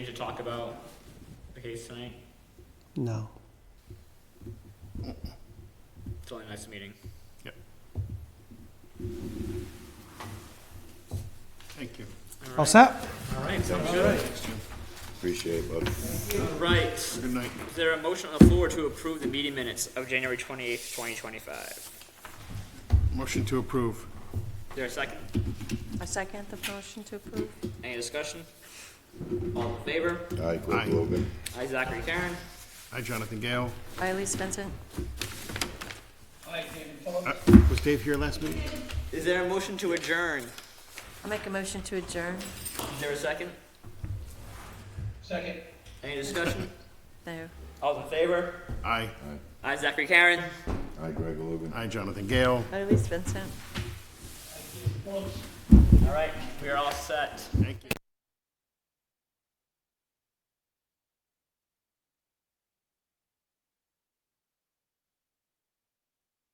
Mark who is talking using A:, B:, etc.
A: Need to talk about the case tonight,
B: No.
A: it's only next meeting.
C: Thank you.
B: All set?
A: All right, sounds good.
D: Appreciate it, bud.
A: All right, is
C: Good night.
A: there a motion on the floor to approve the meeting minutes of January twenty-eighth, twenty twenty-five?
C: Motion to approve.
A: Is there a second?
E: I second the motion to approve.
A: Any discussion? All in favor?
D: Hi,
C: Aye.
D: Cliff Logan.
A: Aye, Zachary Karen.
C: Hi, Jonathan Gale.
E: By Elise Vincent.
C: Uh, Was Dave here last meeting?
A: Is there a motion to adjourn?
E: I'll make a motion to adjourn.
A: Is there a second? Second. Any discussion?
E: No.
A: All in favor?
C: Aye.
A: Aye, Zachary Karen.
D: Hi, Greg Logan.
C: Hi, Jonathan Gale.
E: By Elise Vincent.
A: All right, we are all set.
C: Thank you.